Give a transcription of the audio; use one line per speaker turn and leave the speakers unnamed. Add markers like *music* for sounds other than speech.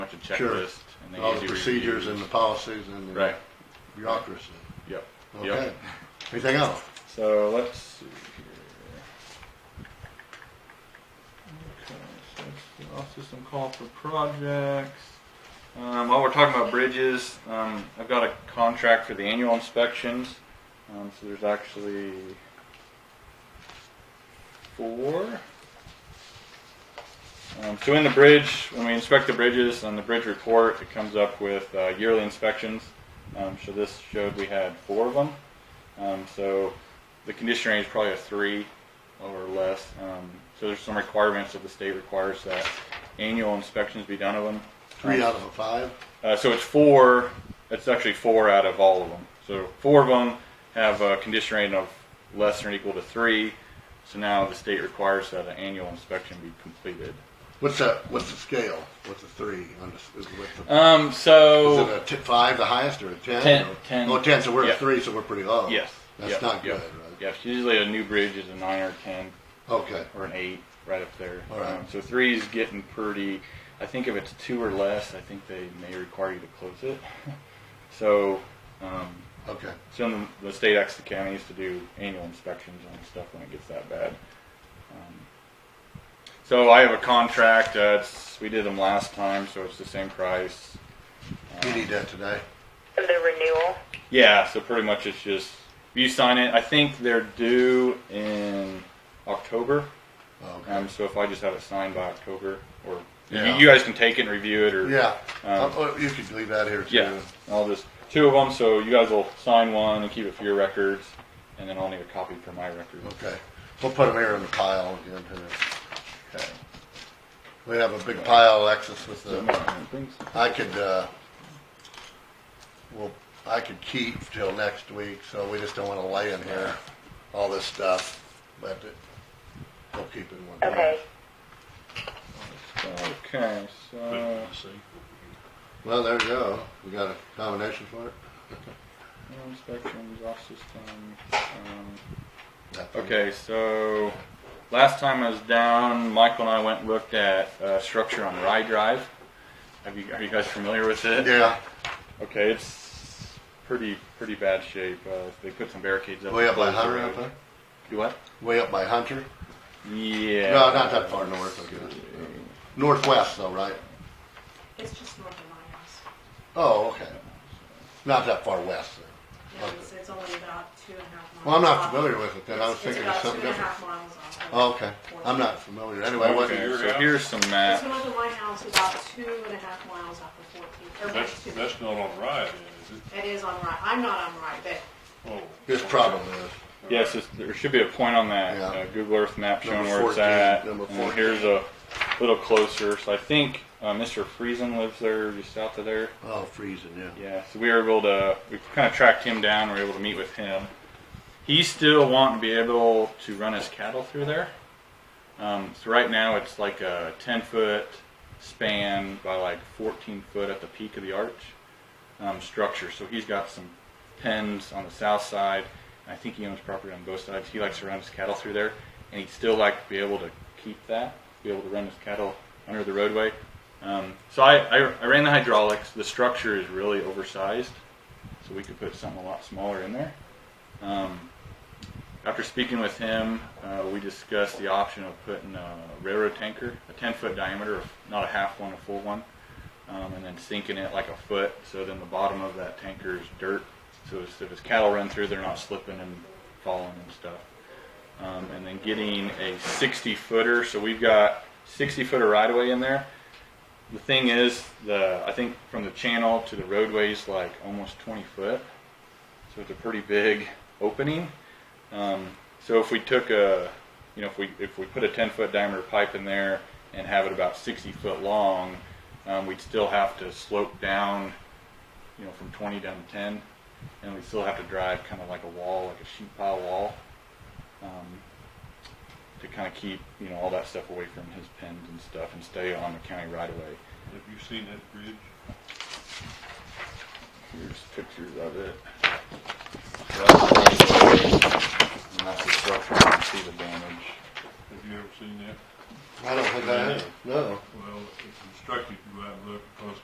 out the checklist. and they
All the
usually
procedures
review.
and the policies and the
Right,
bureaucracy.
yep,
Okay.
yep.
Anything else?
So let's see here. Okay, so it's the off system call for projects. Um, while we're talking about bridges, um, I've got a contract for the annual inspections. Um, so there's actually four. Um, so in the bridge, when we inspect the bridges on the bridge report, it comes up with uh, yearly inspections. Um, so this showed we had four of them. Um, so the condition range is probably a three or less. Um, so there's some requirements that the state requires that annual inspections be done of them.
Three out of a five?
Uh, so it's four. It's actually four out of all of them. So four of them have a condition rating of less than or equal to three. So now the state requires that an annual inspection be completed.
What's that, what's the scale? What's the three? on this- Is what's the-
Um.
is
So
it a t- five, the highest, or a ten?
Ten-
or-
ten.
Oh, ten, so we're
Yeah.
at three, so we're pretty low.
yes.
That's
yep,
not
yep,
good, right?
Yes. Usually a new bridge is a nine or a ten
Okay,
or an eight, right up there.
All right.
Um, so three is getting pretty. I think if it's two or less, I think they may require you to close it. *laughs* so. Um,
okay.
So then the state asks the counties to do annual inspections on stuff when it gets that bad. Um, So I have a contract, uh, it's, we did them last time, so it's the same price. Uh,
You need that today.
of the renewal.
Yeah, so pretty much it's just, you sign it, I think they're due in October.
Okay.
Um, so if I just have it signed by October, or you,
Yeah.
you guys can take it and review it, or
Yeah,
Um,
Oh, you could leave that here too.
Yeah, I'll just two of them. So you guys will sign one and keep it for your records, and then I'll need a copy for my records.
Okay, we'll put them here in the pile again. too.
Okay.
We have a big pile, Alexis, with
So,
the,
thanks.
I could, uh, well, I could keep till next week, so we just don't wanna lay in here, all this stuff, but it- we'll keep it in one.
Okay.
Okay, so
Well, there you go. We got a combination for it?
no inspections off system. Um,
That thing.
okay, so last time I was down, Michael and I went and looked at uh, structure on Rye Drive. Have you, are you guys familiar with it?
Yeah,
Okay, it's pretty pretty bad shape. Uh, they put some barricades up.
way up by
close the
Hunter
road.
up there?
Do what?
Way up by Hunter?
Yeah.
No, not that far north, I guess. Northwest though, right?
It's just north of my house.
Oh, okay. Not that far west then.
Yeah,
Okay.
It's, it's only about two and a half miles.
Well, I'm not
off.
familiar with it then. I was
It's-
thinking of something
It's about
different.
two and a half miles
Oh,
off.
Okay, I'm not familiar. Anyway, it wasn't
Okay,
your,
so here's some
It's
map.
north of my house, about two and a half miles off of fourteen, or
That's,
two.
that's not on Rye then, is it?
It is on right, I'm not on right, but
Oh.
his problem is.
Yes, it's- there should be a point on that
Yeah.
uh, Google Earth map showing
Number
where it's
14,
at.
number
And then
14.
here's a little closer. So I think uh, Mr. Friesen lives there, just south of there.
Oh, freezing, yeah.
Yeah, so we were able to, we kind of tracked him down. We were able to meet with him. He's still wanting to be able to run his cattle through there. Um, so right now it's like a 10 foot span by like 14 foot at the peak of the arch um, structure. So he's got some pens on the south side. And I think he owns property on both sides. He likes to run his cattle through there, and he'd still like to be able to keep that, be able to run his cattle under the roadway. Um, so I, I, I ran the hydraulics. The structure is really oversized, so we could put something a lot smaller in there. Um, after speaking with him, uh, we discussed the option of putting a railroad tanker, a 10 foot diameter, not a half one, a full one, um, and then sinking it like a foot. So then the bottom of that tanker is dirt. So as- if his cattle run through, they're not slipping and falling and stuff. Um, and then getting a 60 footer. So we've got 60 footer right away in there. The thing is, the I think from the channel to the roadway's like almost 20 foot. So it's a pretty big opening. Um, so if we took a, you know, if we if we put a 10 foot diameter pipe in there and have it about 60 foot long, um, we'd still have to slope down, you know, from 20 down to 10, and we'd still have to drive kind of like a wall, like a sheet pile wall, um, to kind of keep you know all that stuff away from his pens and stuff and stay on the county right away.
Have you seen that bridge?
Here's pictures of it. And that's the structure. You can see the damage.
Have you ever seen that?
I don't think I have. No.
Well, it's instructive to go out and look because